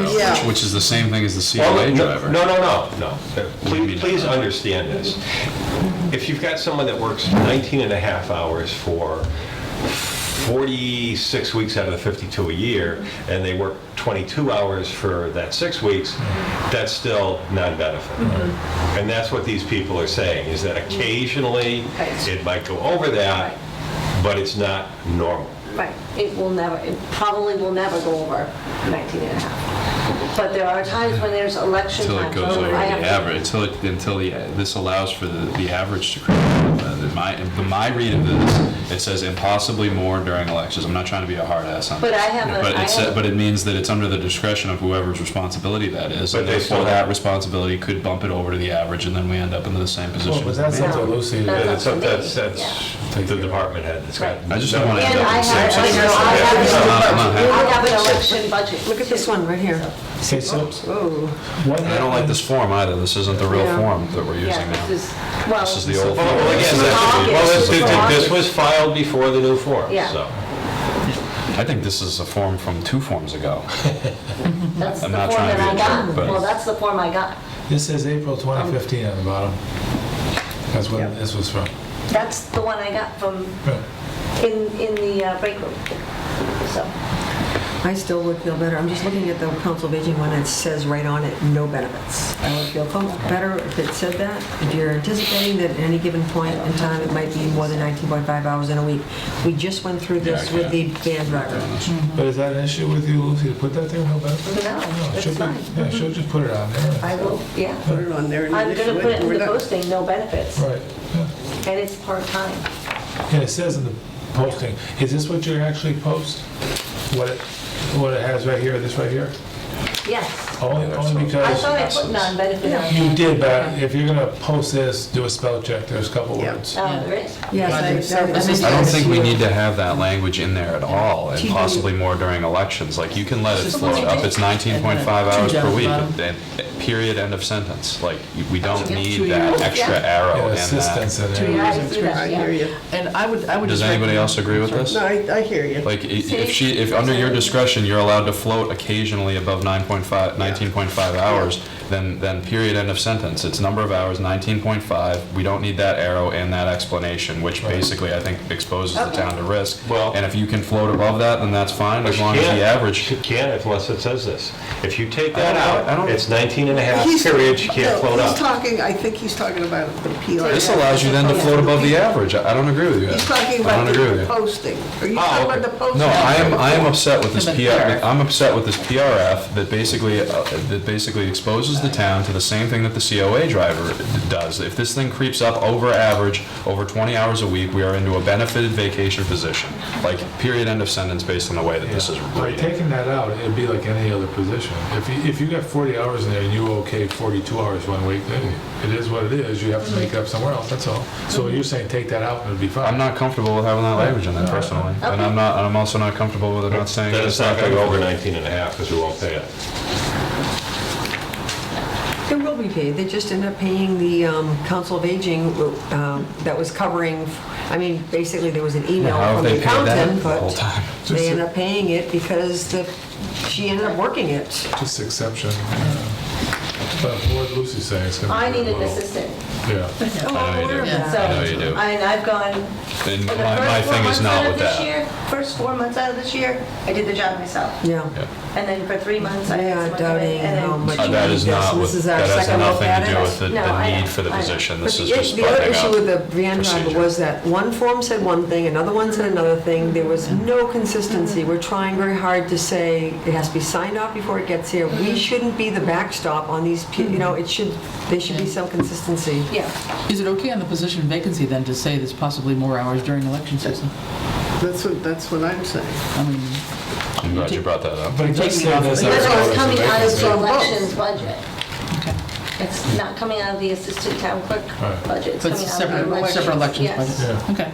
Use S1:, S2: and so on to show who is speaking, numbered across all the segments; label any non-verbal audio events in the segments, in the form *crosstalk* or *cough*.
S1: Yeah.
S2: Which is the same thing as the
S3: Well,
S2: COA
S3: no-
S2: driver.
S3: No, no, no, no.
S2: do you
S3: Please-
S2: mean?
S3: Please understand this. If you've got someone that works 19 and a half hours for 46 weeks out of the 52 a year, and they work 22 hours for that six weeks, that's still non-benefit.
S1: Mm-hmm.
S3: And that's what these people are saying, is that occasionally,
S1: Right.
S3: it might go over that, but it's not normal.
S1: Right, it will never, it probably will never go over 19 and a half. But there are times when there's election
S2: Until
S1: time.
S2: it goes
S1: so
S2: over the
S1: Oh, I have to-
S2: average, until, it- until the, this allows for the, the average to creep up. Uh, the- My, the- my read of this, it says impossibly more during elections. I'm not trying to be a hard ass on it.
S1: But I have a-
S2: But
S1: I
S2: it
S1: have-
S2: said, but it means that it's under the discretion of whoever's responsibility that is.
S3: But
S2: And
S3: they
S2: therefore,
S3: still-
S2: that responsibility could bump it over to the average and then we end up in the same position.
S4: Well, but that's
S1: Yeah.
S4: up to Lucy.
S1: That's
S3: That's,
S1: up to me,
S3: that's
S1: yeah.
S3: that's the department head that's got.
S2: I just don't want to end up
S1: And
S2: in
S1: I
S2: the same
S1: have,
S2: situation.
S1: I
S2: I'm not- I'm
S1: have,
S2: not
S1: an-
S2: happy.
S1: I have an election budget.
S5: Look at this one right here.
S4: Okay, so
S5: Oh,
S4: what
S2: And I don't like
S4: happens-
S2: this form either. This isn't the real
S5: Yeah.
S2: form that we're
S1: Yeah,
S2: using now.
S1: this is, well,
S2: This is the old.
S3: Oh, Well, well, again, that's- well, this- this this was filed before the new form,
S1: Yeah.
S3: so.
S2: I think this is a form from two forms ago.
S1: that's the
S2: I'm
S1: form
S2: not trying to
S1: that I
S2: be a jerk,
S1: got.
S2: but-
S1: Well, that's the form I got.
S4: This says April 2015 on the bottom. That's when this was from.
S1: That's the one I got from,
S4: Right.
S1: in, in the uh, break room. So,
S5: I still would feel better. I'm just looking at the council of aging one that says right on it, no benefits. I would feel co- better if it said that. If you're anticipating that at any given point in time, it might be more than 19.5 hours in a week. We just went through this
S2: Yeah, I
S5: with the van driver.
S4: But is that an issue with you, Lucy, to put that Mm-hmm. there, no benefit?
S1: no,
S4: No,
S1: it's
S4: she'll put-
S1: fine.
S4: Yeah, she'll just put it on
S1: I
S4: there.
S1: will, yeah.
S6: put it on there. and
S1: I'm
S6: initial
S1: gonna put it in
S6: We're
S1: the
S6: not-
S1: posting, no benefits,
S4: Right, yeah.
S1: and it's part-time.
S4: And it says in the posting, is this what you actually post? What it, what it has right here, this right here?
S1: Yes.
S4: Only, only
S1: I thought I
S4: because
S1: put non-benefit on
S4: you
S1: there.
S4: did, but if you're gonna post this, do a spell check, there's a couple
S6: Yeah.
S4: words.
S1: Oh, there is.
S5: Yes, I- I- I mean-
S2: I don't think we need to have that language in there at all, and possibly more during elections. Like, you can let it float up, it's 19.5 hours per week, and- and period, end of sentence. Like, you- we don't need that extra
S4: Yeah,
S2: arrow in
S4: assistance
S2: that.
S4: in there.
S1: Yeah, I see
S6: I
S1: that,
S6: hear
S1: yeah.
S6: you.
S7: And I would, I would
S2: Does
S7: just.
S2: anybody
S7: recommend-
S2: else agree with this?
S6: No, I, I hear you.
S2: Like, i- if she, if under your discretion, you're allowed to float occasionally above 9.5, 19.5 hours, then, then period, end of sentence. It's number of hours, 19.5. We don't need that arrow and that explanation, which basically, I think, exposes the town to risk.
S3: Well-
S2: And if you can float above that, then that's fine, as
S3: She
S2: long as
S3: can't-
S2: the average.
S3: She can't unless it says this. If you take that
S2: I don't- I
S3: out,
S2: don't-
S3: it's 19 and a half
S6: He's-
S3: period, she can't
S6: no,
S3: float
S6: He's
S3: up.
S6: talking, I think he's talking about the PRF.
S2: This allows you then to float above the average. I I don't agree with you.
S6: He's talking
S2: I don't
S6: about
S2: agree with
S6: the
S2: you.
S6: posting. Are you
S3: Oh,
S6: talking
S3: okay.
S6: about the posting?
S2: No, I am, I am upset with this
S7: With the
S2: PR,
S7: PRF.
S2: I'm upset with this PRF that basically, uh, that basically exposes the town to the same thing that the COA driver does. If this thing creeps up over average, over 20 hours a week, we are into a benefited vacation position. Like, period, end of sentence, based on the way that this is
S4: By
S2: rated.
S4: taking that out, it'd be like any other position. If you, if you got 40 hours in there and you okay 42 hours one week, then it is what it is, you have to make it up somewhere else, that's all. So you're saying take that out and it'd be fine?
S2: I'm not comfortable with having that language in there personally, and I'm not, and I'm also not comfortable with it not saying.
S3: Then it's not going to go over 19 and a half because we won't pay it.
S5: They will be paid, they just end up paying the um, Council of Aging um, that was covering, I mean, basically, there was an email
S2: How have
S5: from
S2: they
S5: the
S2: paid that
S5: accountant,
S2: the whole time?
S5: but *laughs* they end up paying it because the, she ended up working it.
S4: Just exception. yeah. But what Lucy's saying is gonna be.
S1: I need
S4: a
S1: an
S4: little-
S1: assistant,
S4: Yeah.
S5: Oh,
S2: I know you do.
S1: so,
S2: I know you do.
S1: and I've gone,
S2: And
S1: for the
S2: my, my
S1: first four
S2: thing is
S1: months
S2: not
S1: out
S2: with
S1: of this
S2: that.
S1: year, first four months out of this year, I did the job myself.
S5: Yeah.
S1: And then for three months, I
S5: They are
S1: had someone come
S5: doubting
S1: in, and
S5: how
S1: then
S5: much.
S2: Uh, That is
S5: you need this.
S2: not,
S5: This
S2: with-
S5: is our
S2: that has
S5: second look
S2: nothing
S5: at
S2: to do
S5: it.
S2: with the,
S1: No, I
S2: the
S1: know,
S2: need for the
S1: I know.
S2: position.
S5: But
S2: This
S5: the
S2: is just
S5: the other
S2: finding
S5: issue with the
S2: out.
S5: van driver
S2: procedure.
S5: was that one form said one thing, another one said another thing. There was
S2: Mm-hmm.
S5: no consistency. We're trying very hard to say it has to be signed off before it gets here.
S2: Mm-hmm.
S5: We shouldn't be the backstop on these, pe- you know, it should, there should be
S2: Mm-hmm.
S5: some consistency.
S1: Yeah,
S7: Is it okay on the position vacancy then to say there's possibly more hours during election season?
S6: That's what, that's what I'm saying.
S7: I mean,
S2: I'm glad you brought that up.
S4: But it does say this.
S1: but
S4: as
S1: it's coming out of the
S6: on both.
S1: elections budget.
S7: okay.
S1: It's not coming out of the assistant town clerk
S4: Right.
S1: budget, it's
S7: But it's a
S1: coming out of the
S7: separate,
S1: elections.
S7: separate elections
S1: yes.
S7: budget?
S4: Yeah.
S7: Okay.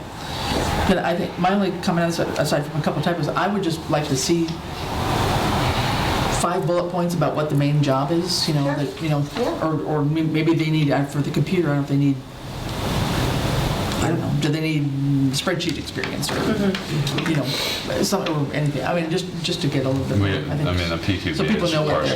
S7: Then I think, my only comment on this, aside from a couple of typos, I would just like to see five bullet points about what the main job is, you know,
S1: Sure.
S7: that, you know,
S1: Yeah.
S7: or, or may- maybe they need, uh, for the computer, I don't know if they need, I don't know, do they need spreadsheet experience or, Mm-hmm. you know, some, or anything? I mean, just, just to get a little bit.
S2: We,
S7: more,
S2: I
S7: think.
S2: mean, the PQB
S7: So people
S2: is
S7: know what
S2: partially.
S7: they're-